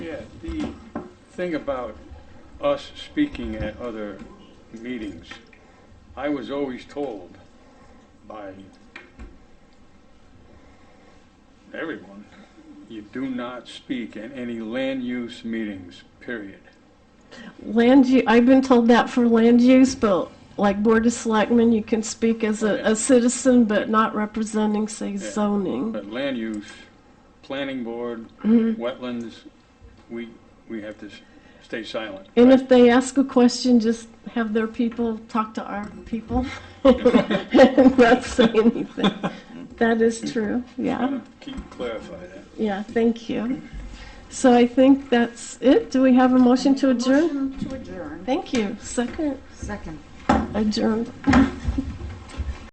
that the thing about us speaking at other meetings, I was always told by everyone, you do not speak at any land use meetings, period. Land, u- I've been told that for land use, but like Board of Selectmen, you can speak as a, a citizen, but not representing, say, zoning. But land use, planning board, wetlands, we, we have to s- stay silent. And if they ask a question, just have their people talk to our people and not say anything. That is true, yeah, Keep clarify that. yeah, thank you. So I think that's it. Do we have a motion to adjourn? Motion to adjourn. Thank you. Second, Second. adjourned.